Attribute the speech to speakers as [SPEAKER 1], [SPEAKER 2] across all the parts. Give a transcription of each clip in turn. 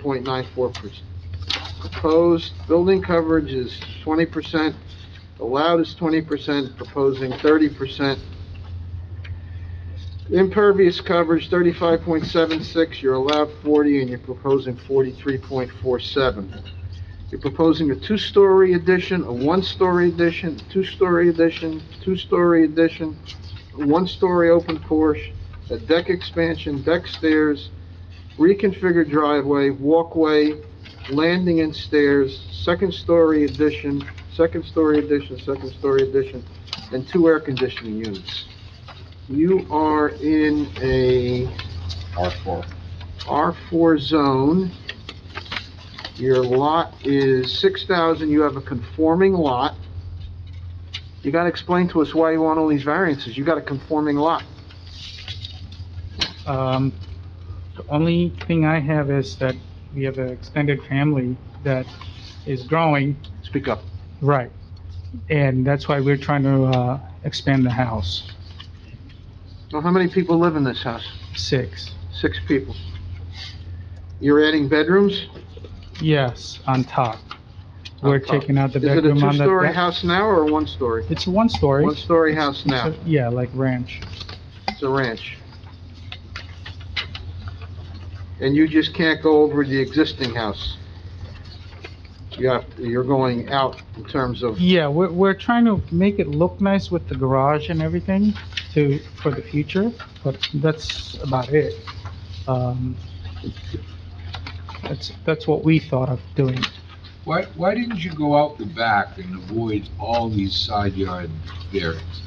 [SPEAKER 1] point nine four percent. Proposed building coverage is twenty percent, allowed is twenty percent, proposing thirty percent. Impervious coverage thirty-five point seven six, you're allowed forty, and you're proposing forty-three point four seven. You're proposing a two-story addition, a one-story addition, two-story addition, two-story addition, a one-story open porch, a deck expansion, deck stairs, reconfigured driveway, walkway, landing and stairs, second-story addition, second-story addition, second-story addition, and two air conditioning units. You are in a
[SPEAKER 2] R four.
[SPEAKER 1] R4 zone. Your lot is 6,000, you have a conforming lot. You gotta explain to us why you want all these variances, you got a conforming lot.
[SPEAKER 3] Um, the only thing I have is that we have an extended family that is growing.
[SPEAKER 1] Speak up.
[SPEAKER 3] Right. And that's why we're trying to, uh, expand the house,
[SPEAKER 1] Now, how many people live in this house?
[SPEAKER 3] six.
[SPEAKER 1] Six people. You're adding bedrooms?
[SPEAKER 3] Yes, on top. We're
[SPEAKER 1] On top.
[SPEAKER 3] taking out the
[SPEAKER 1] Is it a
[SPEAKER 3] bedroom on the
[SPEAKER 1] two-story
[SPEAKER 3] deck.
[SPEAKER 1] house now or a one-story?
[SPEAKER 3] It's a one-story.
[SPEAKER 1] One-story
[SPEAKER 3] It's-
[SPEAKER 1] house
[SPEAKER 3] it's
[SPEAKER 1] now,
[SPEAKER 3] a- Yeah, like ranch.
[SPEAKER 1] it's a ranch. And you just can't go over the existing house? You have, you're going out in terms of,
[SPEAKER 3] Yeah, we're, we're trying to make it look nice with the garage and everything to, for the future, but that's about it. Um, that's, that's what we thought of doing.
[SPEAKER 2] Why, why didn't you go out the back and avoid all these side yard variances?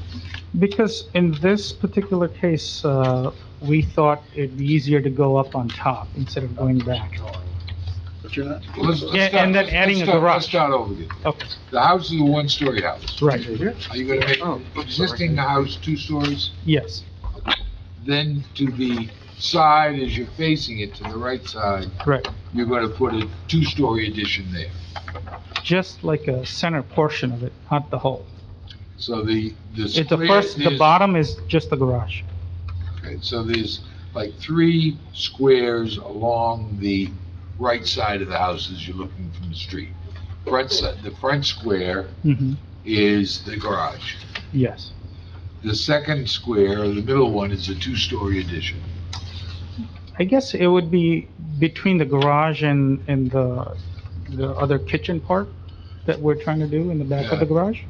[SPEAKER 3] Because in this particular case, uh, we thought it'd be easier to go up on top instead of going back.
[SPEAKER 2] Let's- let's
[SPEAKER 3] Yeah, and
[SPEAKER 2] start-
[SPEAKER 3] then
[SPEAKER 2] let's-
[SPEAKER 3] adding
[SPEAKER 2] let's
[SPEAKER 3] a
[SPEAKER 2] start-
[SPEAKER 3] garage.
[SPEAKER 2] Let's start over again.
[SPEAKER 3] Okay,
[SPEAKER 2] The house is a one-story house.
[SPEAKER 3] right,
[SPEAKER 2] Are you gonna make
[SPEAKER 1] Oh, I'm sorry.
[SPEAKER 2] existing house two stories?
[SPEAKER 3] yes,
[SPEAKER 2] Then to the side, as you're facing it, to the right side,
[SPEAKER 3] correct.
[SPEAKER 2] you're gonna put a two-story addition there.
[SPEAKER 3] Just like a center portion of it, not the whole.
[SPEAKER 2] So the, the.
[SPEAKER 3] It's the
[SPEAKER 2] square-
[SPEAKER 3] first, the
[SPEAKER 2] there's-
[SPEAKER 3] bottom is just the garage.
[SPEAKER 2] Okay, So there's like three squares along the right side of the house as you're looking from the street. Front side, the front square
[SPEAKER 3] hmm
[SPEAKER 2] is the garage.
[SPEAKER 3] yes,
[SPEAKER 2] The second square, or the middle one, is a two-story addition.
[SPEAKER 3] I guess it would be between the garage and, and the, the other kitchen part that we're trying to do in the back of the
[SPEAKER 2] Yeah.
[SPEAKER 3] garage.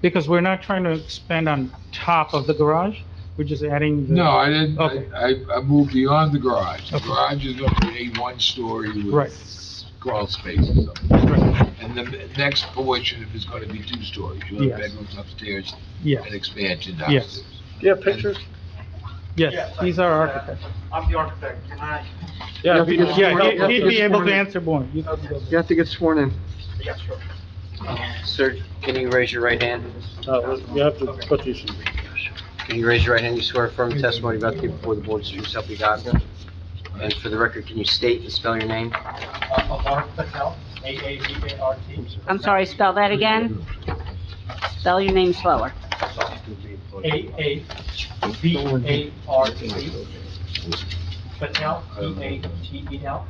[SPEAKER 3] Because we're not trying to expand on top of the garage, we're just adding. the-
[SPEAKER 2] No, I didn't,
[SPEAKER 3] Okay.
[SPEAKER 2] I, I- I moved beyond the garage. The
[SPEAKER 3] Okay.
[SPEAKER 2] garage is going to be a one-story
[SPEAKER 3] Right.
[SPEAKER 2] with crawl space and something.
[SPEAKER 3] Right,
[SPEAKER 2] And the next portion is going to be two stories. You'll have
[SPEAKER 3] Yes.
[SPEAKER 2] bedrooms upstairs and
[SPEAKER 3] Yes,
[SPEAKER 2] expansion
[SPEAKER 3] Yes.
[SPEAKER 2] downstairs.
[SPEAKER 4] Do you have
[SPEAKER 2] pictures?
[SPEAKER 3] yes, he's our architect.
[SPEAKER 4] I'm the architect, can I?
[SPEAKER 1] Yeah, we-
[SPEAKER 3] Yeah,
[SPEAKER 1] Yeah,
[SPEAKER 3] he- he'd be able to
[SPEAKER 1] yeah.
[SPEAKER 3] answer more. You can go.
[SPEAKER 1] you have to get sworn in.
[SPEAKER 4] Yeah, sure.
[SPEAKER 5] Sir, can you raise your right hand?
[SPEAKER 4] You have to put these.
[SPEAKER 5] Can you raise your right hand? You swear affirm the testimony about to give before the board is true self you got. And for the record, can you state and spell your name?
[SPEAKER 6] I'm sorry, spell that again? Spell your name slower.
[SPEAKER 4] A A V A R T. Patel, E A T E L.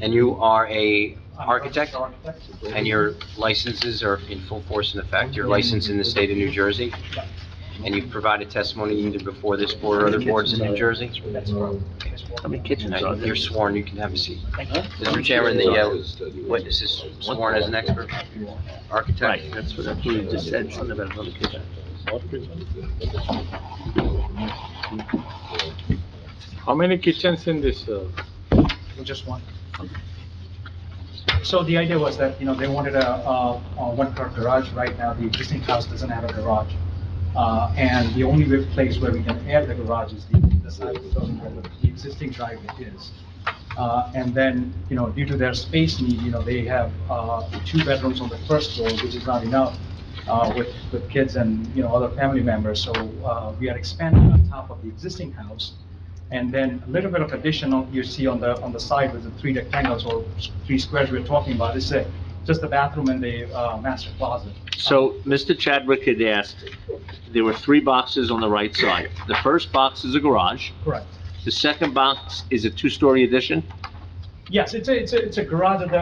[SPEAKER 5] And you are a
[SPEAKER 4] I'm an
[SPEAKER 5] architect,
[SPEAKER 4] architect.
[SPEAKER 5] and your licenses are in full force and effect. Your license in the state of New Jersey, and you've provided testimony either before this board or other boards in New Jersey.
[SPEAKER 4] That's right.
[SPEAKER 5] And You're sworn, you can have a seat. Mr. Chairman, the uh, witness is sworn as an expert, architect.
[SPEAKER 7] That's what I believe, you just said something about another kitchen. How many kitchens in this, uh,
[SPEAKER 4] Just one. So the idea was that, you know, they wanted a, a a one-car garage. Right now, the existing house doesn't have a garage. Uh, and the only real place where we can add the garage is the, the side of the building where the- the existing driveway is. Uh, and then, you know, due to their space need, you know, they have, uh, two bedrooms on the first floor, which is not enough, uh, with, with kids and, you know, other family members. So, uh, we are expanding on top of the existing house. And then a little bit of additional you see on the, on the side with the three rectangles or s- three squares we're talking about, is a, just the bathroom and the, uh, master closet.
[SPEAKER 7] so Mr. Chadwick had asked, there were three boxes on the right side. The first box is a garage,
[SPEAKER 4] Correct.
[SPEAKER 7] the second box is a two-story addition,
[SPEAKER 4] Yes, it's a, it's a, it's a garage that